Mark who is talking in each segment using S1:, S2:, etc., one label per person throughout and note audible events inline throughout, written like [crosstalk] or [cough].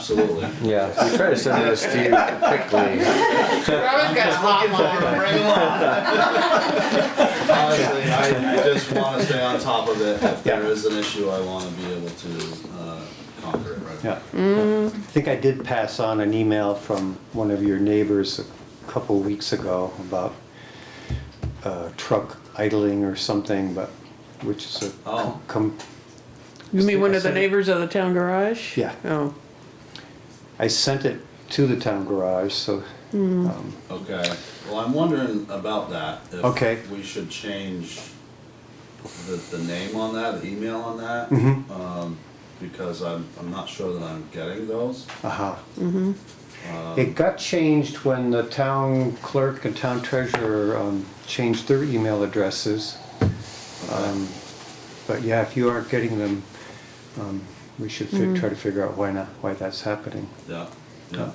S1: Absolutely.
S2: Yeah, we try to send those to you quickly.
S3: Robin's got a lot longer.
S1: Honestly, I just wanna stay on top of it. If there is an issue, I wanna be able to, uh, conquer it right away.
S4: Yeah. I think I did pass on an email from one of your neighbors a couple weeks ago about uh, truck idling or something, but, which is a.
S1: Oh.
S4: Com,
S3: You mean one of the
S4: Yes.
S3: neighbors of the town garage?
S4: Yeah.
S3: Oh,
S4: I sent it to the town garage, so, um,
S1: Okay, well, I'm wondering about that. if
S4: Okay.
S1: We should change the, the name on that, the email on that.
S4: Mm-hmm.
S1: Um, because I'm, I'm not sure that I'm getting those.
S4: uh-huh.
S2: Mm-hmm.
S4: It got changed when the town clerk and town treasurer um, changed their email addresses. Um, But yeah, if you aren't getting them, um, we should
S5: Mm-hmm.
S4: fi- try to figure out why not, why that's happening.
S1: Yeah, yeah.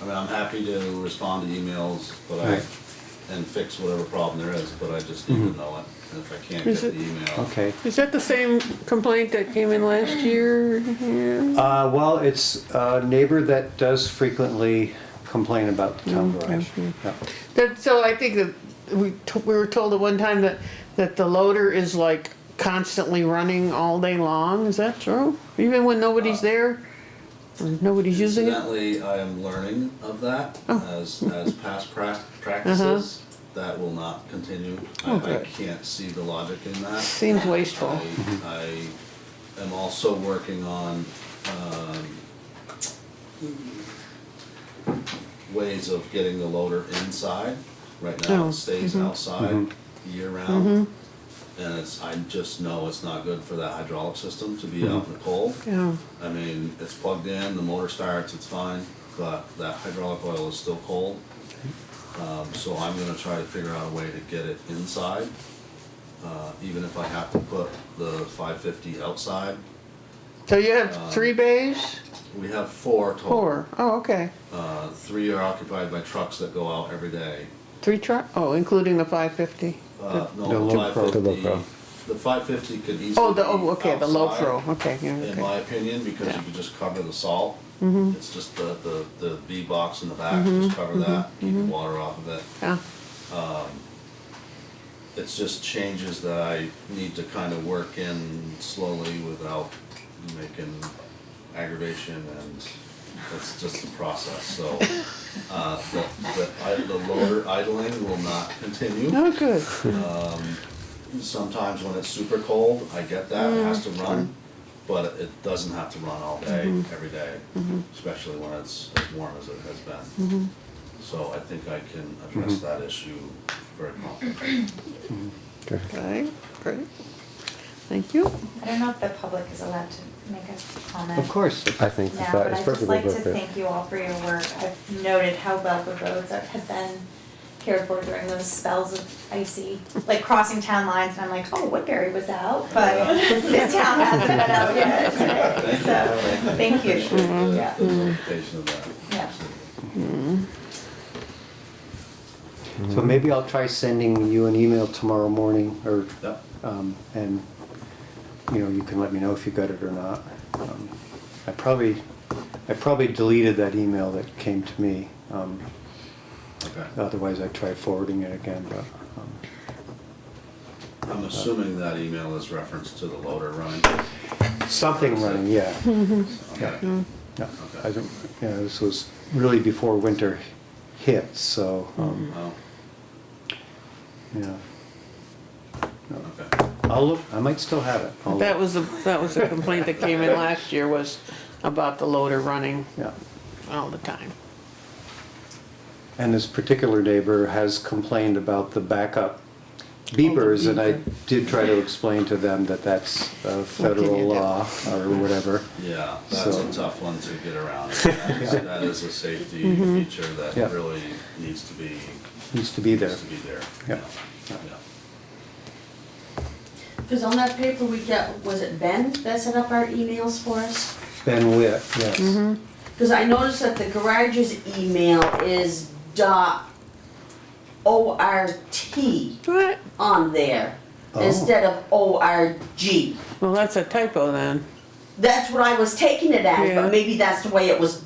S1: I mean, I'm happy to respond to emails, but I,
S4: Right. Mm-hmm.
S1: and fix whatever problem there is, but I just need to know it. And if I can't get
S3: Is
S1: the
S3: it-
S1: email,
S4: Okay,
S3: is that the same complaint that came in last year? Yeah.
S4: uh, well, it's a neighbor that does frequently complain about the town
S5: Mm-hmm.
S4: garage. Yeah.
S3: That, so I think that we, t- we were told at one time that, that the loader is like constantly running all day long, is that true? Even when nobody's there? When Nobody's using it? Oh.
S1: Incidentally, I am learning of that as, as past prac-
S3: Uh-huh.
S1: practices. That will not continue. I, I can't see the logic in that.
S3: Seems wasteful.
S1: I, I am also working on, um, ways of getting the loader inside. Right now,
S3: Oh,
S1: it stays outside year round. And it's, I just know it's not good for that hydraulic system to be out in the cold.
S3: Yeah,
S1: I mean, it's plugged in, the motor starts, it's fine, but that hydraulic oil is still cold. Um, so I'm gonna try to figure out a way to get it inside, uh, even if I have to put the five fifty outside.
S3: so you have three bays?
S1: We have Uh, four total.
S3: Four. Oh, okay.
S1: Uh, three are occupied by trucks that go out every day.
S3: Three truck, oh, including the five fifty?
S1: Uh,
S4: The
S1: no,
S4: low
S1: five
S4: pro.
S2: The low
S1: fifty,
S2: pro.
S1: the five fifty could easily be
S3: Oh, the, oh, okay, the low
S1: outside.
S3: pro, okay, yeah,
S1: in
S3: okay. Mm-hmm.
S1: my opinion, because you
S3: Yeah.
S1: could just cover the salt. It's just the, the, the V box in the back,
S3: Mm-hmm.
S1: just cover that, keep the water off of it.
S3: Yeah.
S1: It's just changes that I need to kind of work in slowly without making aggravation and it's just a process, so. Uh, the, the, i- the loader idling will not continue.
S3: Oh, good.
S1: Sometimes when it's super cold, I get that, it has to run, but it doesn't have to run all day, every day, especially when it's as warm as it has been. So I think I can address that issue very promptly.
S3: Okay, great. Thank you.
S5: I don't know if the public is allowed to make a comment.
S4: Of course,
S2: I think
S5: Now,
S2: that
S5: but
S2: is
S5: I'd just
S2: perfectly
S5: like to
S2: appropriate.
S5: thank you all for your work. I've noted how well the roads are- have been cared for during those spells of icy, like crossing town lines, and I'm like, oh, Woodbury was out, but this town hasn't been out yet today, [clears throat] so, thank you.
S1: Appreciate
S5: Yeah.
S1: the- the notification of that.
S5: Yeah.
S4: so maybe I'll try sending you an email tomorrow morning, or,
S1: Yep.
S4: um, and, you know, you can let me know if you got it or not. Um, I probably, I probably deleted that email that came to me, um,
S1: Okay.
S4: otherwise I'd try forwarding it again, but, um,
S1: I'm assuming that email is referenced to the loader running.
S4: something running, yeah.
S3: Hmm.
S1: Okay.
S4: Yeah, I don't, yeah, this was really before winter hit, so, um,
S1: Well,
S3: Mm-hmm.
S4: yeah.
S1: okay.
S4: I'll look, I might still have it. I'll
S3: That
S4: look.
S3: was the, that was the complaint that came in last year was about the loader running
S4: Yeah.
S3: all the time.
S4: And this particular neighbor has complained about the backup beepers, and I did try to explain to them that that's uh, federal
S3: you do?
S4: law or whatever.
S1: Yeah, that's a
S4: So-
S1: tough one to get around.
S4: [laughs]
S1: That is- That is a safety feature that
S4: Yeah.
S1: really needs to be,
S4: Needs to be there.
S1: needs to be there.
S4: Yeah.
S1: Yeah.
S6: Because on that paper we get, was it Ben that set up our emails for us?
S4: Ben Witt,
S3: Mm-hmm.
S4: yes.
S6: Because I noticed that the garage's email is dot O R T
S3: What?
S6: on there
S4: Oh.
S6: instead of O R G.
S3: Well, that's a typo then.
S6: That's what I was taking it as,
S3: Yeah.
S6: but maybe that's the way it was